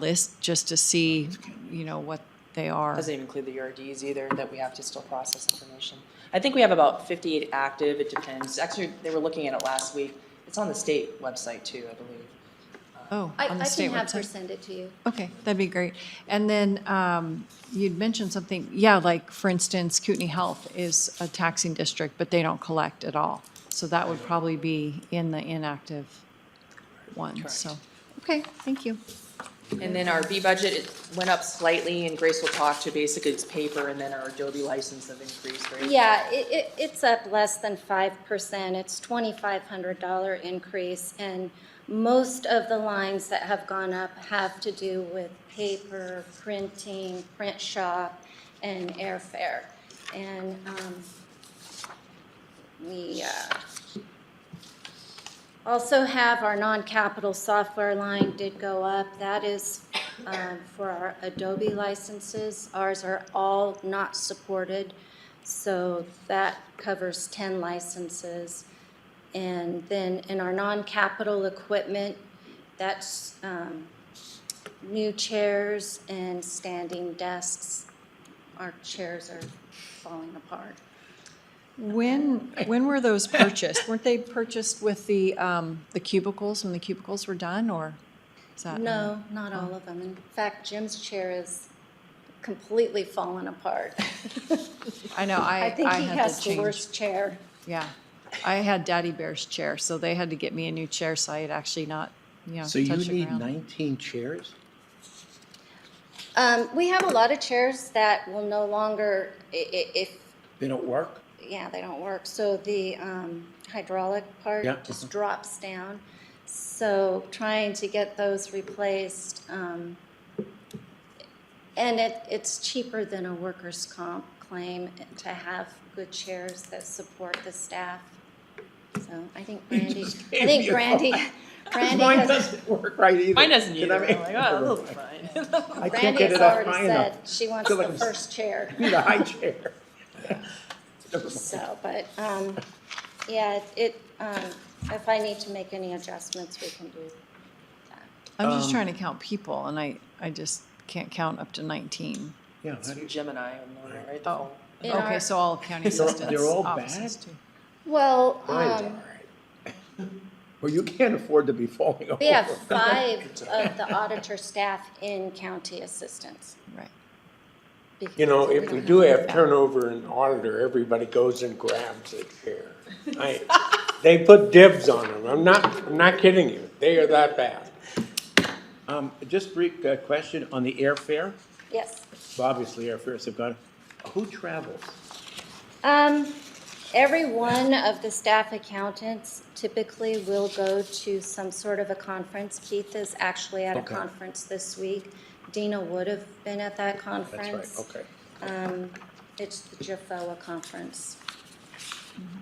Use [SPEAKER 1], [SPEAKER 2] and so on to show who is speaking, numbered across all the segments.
[SPEAKER 1] list just to see, you know, what they are.
[SPEAKER 2] Doesn't even include the URDs either, that we have to still process information. I think we have about 58 active, it depends. Actually, they were looking at it last week. It's on the state website too, I believe.
[SPEAKER 1] Oh,
[SPEAKER 3] I,
[SPEAKER 1] on the
[SPEAKER 3] I
[SPEAKER 1] state
[SPEAKER 3] can have her
[SPEAKER 1] website.
[SPEAKER 3] send it to you.
[SPEAKER 1] Okay, that'd be great. And then um, you'd mentioned something, yeah, like, for instance, Kootenai Health is a taxing district, but they don't collect at all. So that would probably be in the inactive one, so, okay, thank you.
[SPEAKER 2] And then our B budget, it went up slightly, and Grace will talk to basically it's paper, and then our Adobe license have increased, right?
[SPEAKER 3] Yeah, it, it, it's up less than five percent. It's twenty-five hundred dollar increase. And most of the lines that have gone up have to do with paper, printing, print shop, and airfare. And, um, we, uh, also have our non-capital software line did go up. That is um, for our Adobe licenses. Ours are all not supported, so that covers 10 licenses. And then in our non-capital equipment, that's um, new chairs and standing desks. Our chairs are falling apart.
[SPEAKER 1] When, when were those purchased? Weren't they purchased with the, um, the cubicles when the cubicles were done, or? is that-
[SPEAKER 3] No, not all
[SPEAKER 1] Oh.
[SPEAKER 3] of them. In fact, Jim's chair is completely fallen apart.
[SPEAKER 1] I know, I,
[SPEAKER 3] I
[SPEAKER 1] I
[SPEAKER 3] think he
[SPEAKER 1] had
[SPEAKER 3] has
[SPEAKER 1] to
[SPEAKER 3] the
[SPEAKER 1] change.
[SPEAKER 3] worst chair.
[SPEAKER 1] Yeah, I had Daddy Bear's chair, so they had to get me a new chair, so I had actually not, you know, touched
[SPEAKER 4] So
[SPEAKER 1] the
[SPEAKER 4] you
[SPEAKER 1] ground.
[SPEAKER 4] need 19 chairs?
[SPEAKER 3] Um, we have a lot of chairs that will no longer, i- i- if,
[SPEAKER 4] They don't work?
[SPEAKER 3] yeah, they don't work. So the, um, hydraulic part
[SPEAKER 4] Yeah,
[SPEAKER 3] just
[SPEAKER 4] mhm.
[SPEAKER 3] drops down. So trying to get those replaced, um, and it, it's cheaper than a workers' comp claim to have good chairs that support the staff. So I think Brandy, I
[SPEAKER 4] just gave
[SPEAKER 3] think
[SPEAKER 4] me a
[SPEAKER 3] Brandy, Brandy
[SPEAKER 4] Mine
[SPEAKER 3] has-
[SPEAKER 4] doesn't work right either.
[SPEAKER 2] Mine doesn't
[SPEAKER 4] Can
[SPEAKER 2] either.
[SPEAKER 4] I
[SPEAKER 2] I'm
[SPEAKER 4] make-
[SPEAKER 2] like, oh, it'll be fine.
[SPEAKER 4] I can't
[SPEAKER 3] Brandy
[SPEAKER 4] get
[SPEAKER 3] has
[SPEAKER 4] it up
[SPEAKER 3] already
[SPEAKER 4] high
[SPEAKER 3] said
[SPEAKER 4] enough.
[SPEAKER 3] she wants
[SPEAKER 4] Feel
[SPEAKER 3] the
[SPEAKER 4] like I'm-
[SPEAKER 3] first chair,
[SPEAKER 4] Need a high chair. Never mind.
[SPEAKER 3] so, but, um, yeah, it, um, if I need to make any adjustments, we can do that.
[SPEAKER 1] I'm
[SPEAKER 4] um,
[SPEAKER 1] just trying to count people, and I, I just can't count up to 19.
[SPEAKER 4] Yeah, how
[SPEAKER 2] It's
[SPEAKER 4] do you-
[SPEAKER 2] Gemini, I'm looking at, right? The
[SPEAKER 1] Oh,
[SPEAKER 2] phone.
[SPEAKER 3] In
[SPEAKER 1] okay,
[SPEAKER 3] our-
[SPEAKER 1] so all county
[SPEAKER 4] They're-
[SPEAKER 1] assistants.
[SPEAKER 4] they're all
[SPEAKER 1] offices
[SPEAKER 4] bad?
[SPEAKER 1] too.
[SPEAKER 3] Well,
[SPEAKER 4] mine's
[SPEAKER 3] um,
[SPEAKER 4] all right. Well, you can't afford to be falling over.
[SPEAKER 3] we have five of the auditor staff in county assistants.
[SPEAKER 1] Right.
[SPEAKER 3] because
[SPEAKER 5] You know, if we
[SPEAKER 3] don't
[SPEAKER 5] do have
[SPEAKER 1] Yeah.
[SPEAKER 5] turnover in auditor, everybody goes and grabs a chair. I- They put dibs on them. I'm not, I'm not kidding you. They are that bad.
[SPEAKER 4] Um, Just brief uh, question on the airfare.
[SPEAKER 3] Yes.
[SPEAKER 4] Obviously, airfares have gone. Who travels?
[SPEAKER 3] Um, every one of the staff accountants typically will go to some sort of a conference. Keith is actually at a
[SPEAKER 4] Okay.
[SPEAKER 3] conference this week. Dina would have been at that conference.
[SPEAKER 4] That's right, okay.
[SPEAKER 3] Um, it's the JFOA conference.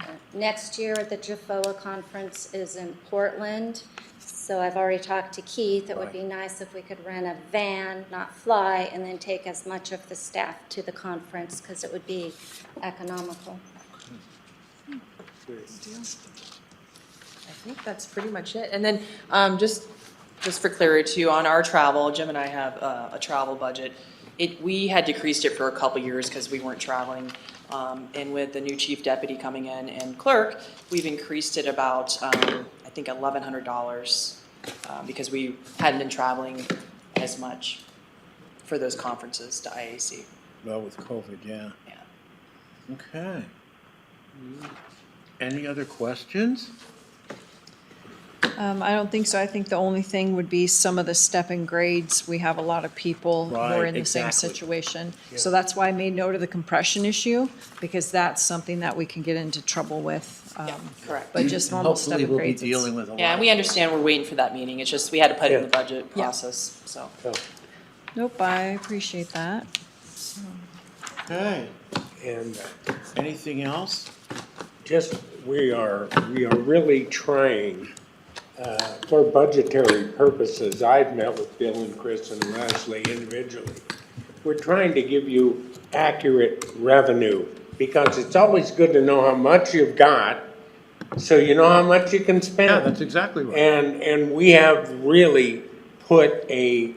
[SPEAKER 3] Uh, Next year, the JFOA conference is in Portland, so I've already talked to Keith. It would be nice if we could rent a van, not fly, and then take as much of the staff to the conference, because it would be economical.
[SPEAKER 2] I think that's pretty much it. And then, um, just, just for clarity too, on our travel, Jim and I have uh, a, a travel budget. It, we had decreased it for a couple years because we weren't traveling. Um, and with the new chief deputy coming in and clerk, we've increased it about, um, I think eleven hundred dollars. Uh, because we hadn't been traveling as much for those conferences to IAC.
[SPEAKER 4] Well, with COVID, yeah.
[SPEAKER 2] Yeah.
[SPEAKER 4] Okay. Any other questions?
[SPEAKER 1] Um, I don't think so. I think the only thing would be some of the step and grades. We have a lot of people who are
[SPEAKER 4] Right,
[SPEAKER 1] in the same
[SPEAKER 4] exactly.
[SPEAKER 1] situation. So that's why I made note of the compression issue, because that's something that we can get into trouble with. um,
[SPEAKER 2] correct.
[SPEAKER 1] But just normal step
[SPEAKER 4] Hopefully,
[SPEAKER 1] and
[SPEAKER 4] we'll be
[SPEAKER 1] grades. it's-
[SPEAKER 4] dealing with a lot.
[SPEAKER 2] Yeah, and we understand we're waiting for that meeting. It's just, we had to put it in the
[SPEAKER 5] Yeah.
[SPEAKER 2] budget process, so.
[SPEAKER 5] So,
[SPEAKER 1] Nope, I appreciate that.
[SPEAKER 4] Okay.
[SPEAKER 5] And
[SPEAKER 4] Anything else?
[SPEAKER 5] just, we are, we are really trying, uh, for budgetary purposes. I've met with Bill and Chris and Leslie individually. We're trying to give you accurate revenue because it's always good to know how much you've got so you know how much you can spend.
[SPEAKER 4] exactly
[SPEAKER 5] And, and we have really put a